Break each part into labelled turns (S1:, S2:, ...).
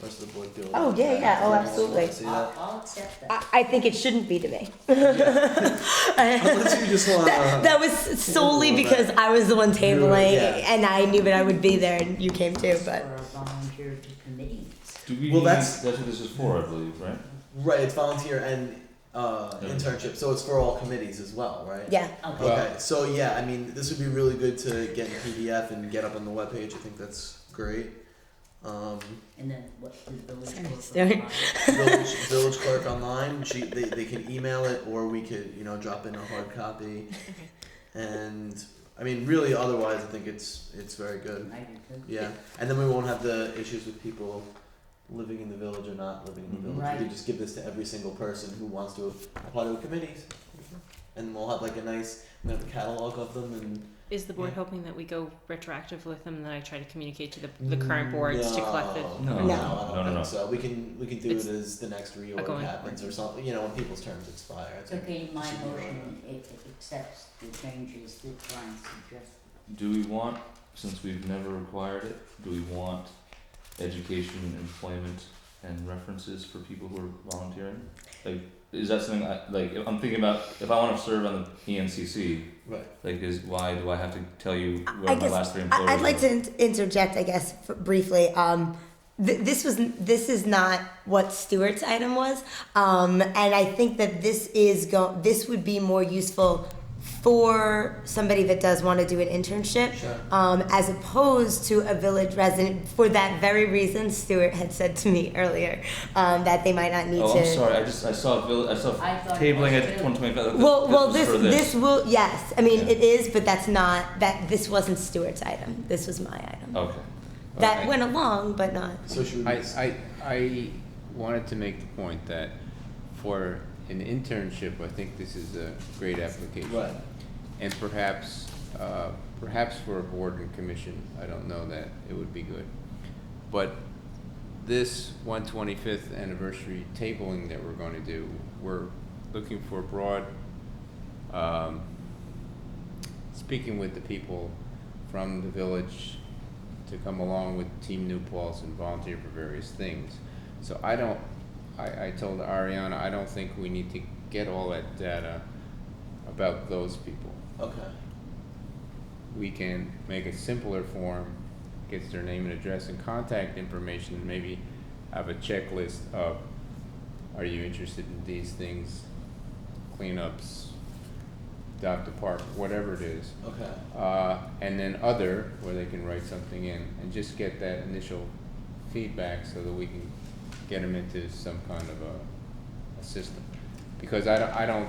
S1: public building.
S2: Oh, yeah, yeah. Oh, absolutely.
S1: See
S3: I'll,
S1: that?
S3: I'll accept that.
S2: I, I think it shouldn't be to me.
S1: Unless you just want
S2: That, that was solely because I was the one tabling
S1: Yeah.
S2: and I knew that I would be there and you came too, but.
S3: For a volunteer to committee.
S4: Do we?
S1: Well, that's-
S4: that's what this is for, I believe, right?
S1: Right, it's volunteer and uh,
S4: Yeah.
S1: internship, so it's for all committees as well, right?
S2: Yeah,
S3: Okay.
S1: Okay, so yeah, I mean, this would be really good to get in PDF and get up on the webpage. I think that's great. Um,
S3: And then what the village
S2: Sorry,
S3: board
S2: sorry.
S3: requires.
S1: village, village clerk online. She, they, they can email it, or we could you know drop in a hard copy. And I mean, really, otherwise, I think it's it's very good.
S3: I do too.
S1: Yeah, and then we won't have the issues with people living in the village or not living in the
S5: Mm-hmm.
S1: village. We
S3: Right.
S1: could just give this to every single person who wants to apply to a committee,
S5: Mm-hmm.
S1: and we'll have like a nice, we have a catalog of them and.
S5: Is the
S1: Yeah.
S5: board hoping that we go retroactive with them and then I try to communicate to the,
S1: Mm,
S5: the current boards to collect the?
S1: No,
S4: No.
S1: no, I
S2: No.
S4: No,
S1: don't
S4: no, no.
S1: think so. We can we can do
S5: It's
S1: it as the next reorg
S5: going-
S1: happens or something. You know, when people's terms expire. I
S3: So
S1: think
S3: okay,
S1: it
S3: my
S1: should be
S3: motion, it it accepts the changes that Brian suggested.
S4: Do we want, since we've never required it, do we want education, employment, and references for people who are volunteering? Like, is that something I like? If I'm thinking about if I want to serve on the E ENCC,
S1: Right.
S4: like, is why do I have to tell you where
S2: I
S4: my
S2: guess
S4: last three employers?
S2: I, I'd like
S4: were?
S2: to in- interject, I guess, f- briefly. Um, th- this was n- this is not what Stewart's item was, um, and I think that this is go- this would be more useful for somebody that does want to do an internship
S1: Sure.
S2: um, as opposed to a village resident for that very reason Stuart had said to me earlier um, that they might not need
S4: Oh,
S2: to
S4: I'm sorry. I just I saw a vill- I saw
S3: I thought it
S4: tabling
S3: was
S4: at
S3: too.
S4: 125.
S2: well, well,
S4: was
S2: this
S4: for
S2: this will yes. I mean,
S4: Yeah.
S2: it is, but that's not that. This wasn't Stuart's item. This was my item.
S4: Okay.
S2: That
S4: Okay.
S2: went along, but not.
S1: So should we?
S6: I, I, I wanted to make the point that for an internship, I think this is a great application.
S1: Right.
S6: And perhaps, uh, perhaps for a board and commission, I don't know that, it would be good. But this one twenty-fifth anniversary tabling that we're gonna do, we're looking for broad, um, speaking with the people from the village to come along with Team New Paltz and volunteer for various things. So I don't, I, I told Ariana, I don't think we need to get all that data about those people.
S1: okay.
S6: We can make a simpler form, gets their name and address and contact information, and maybe have a checklist of, are you interested in these things? Cleanups, adopt a park, whatever it is
S1: Okay.
S6: uh, and then other, where they can write something in, and just get that initial feedback so that we can get them into some kind of a, a system. Because I don't, I don't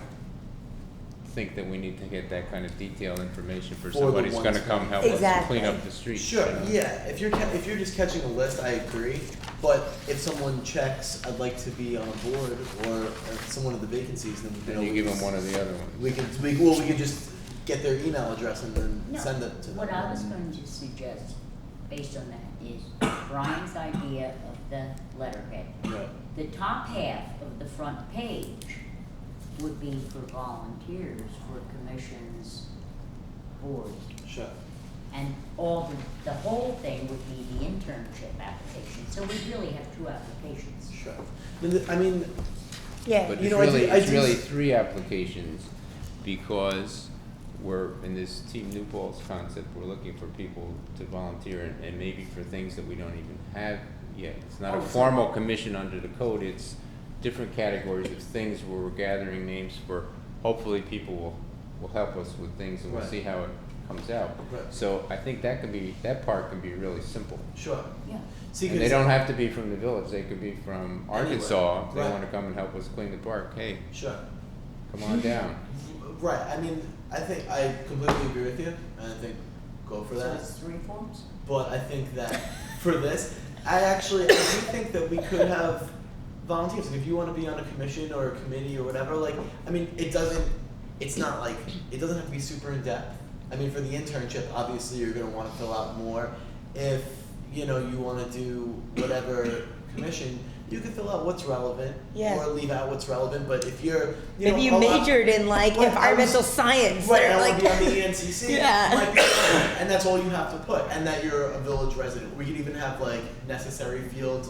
S6: think that we need to get that kind of detailed information for
S1: For the
S6: somebody who's
S1: ones
S6: gonna come
S1: that-
S6: help us
S2: Exactly.
S6: clean up the street.
S1: Sure. Yeah. If you're ca- if you're just catching a list, I agree. But if someone checks, I'd like to be on a board or if someone of the vacancies, then we can
S6: And you
S1: always-
S6: give them one of the other ones.
S1: We can we well we can just get their email address and then
S3: No,
S1: send it to them.
S3: What I was going to suggest, based on that, is Brian's idea of the letterhead.
S1: Right.
S3: The top half of the front page would be for volunteers, for commissions, boards,
S1: Sure.
S3: And all the, the whole thing would be the internship application, so we really have two applications.
S1: Sure. I mean, I mean
S2: Yeah.
S6: But
S1: You
S6: it's
S1: know, I
S6: really,
S1: do- I
S6: it's
S1: do
S6: really
S1: s-
S6: three applications, because we're, in this Team New Paltz concept, we're looking for people to volunteer and, and maybe for things that we don't even have yet. It's not a
S3: Oh, so-
S6: formal commission under the code, it's different categories of things where we're gathering names for, hopefully people will, will help us with things and we'll
S1: Right.
S6: see how it comes out.
S1: Right.
S6: So I think that can be, that part can be really simple.
S1: sure.
S3: Yeah.
S1: See,
S6: And they
S1: 'cause-
S6: don't have to be from the village, they could be from
S1: Anywhere.
S6: Arkansas, if they
S1: Right.
S6: wanna come and help us clean the park, hey,
S1: Sure.
S6: Come on down.
S1: Right. I mean, I think I completely agree with you, and I think go for
S3: So
S1: that.
S3: it's three forms?
S1: but I think that for this, I actually I do think that we could have volunteers. Like if you want to be on a commission or a committee or whatever, like I mean, it doesn't. It's not like it doesn't have to be super in depth. I mean, for the internship, obviously you're gonna want to fill out more. If you know you want to do whatever commission, you can fill out what's relevant
S2: Yeah.
S1: or leave out what's relevant. But if you're you know,
S2: Maybe
S1: a
S2: you
S1: lot-
S2: majored in like
S1: Well, I
S2: environmental
S1: was-
S2: science
S1: Right,
S2: or
S1: I
S2: like
S1: want to be on the E ENCC.
S2: Yeah.
S1: Like, and that's all you have to put, and that you're a village resident. We could even have like necessary fields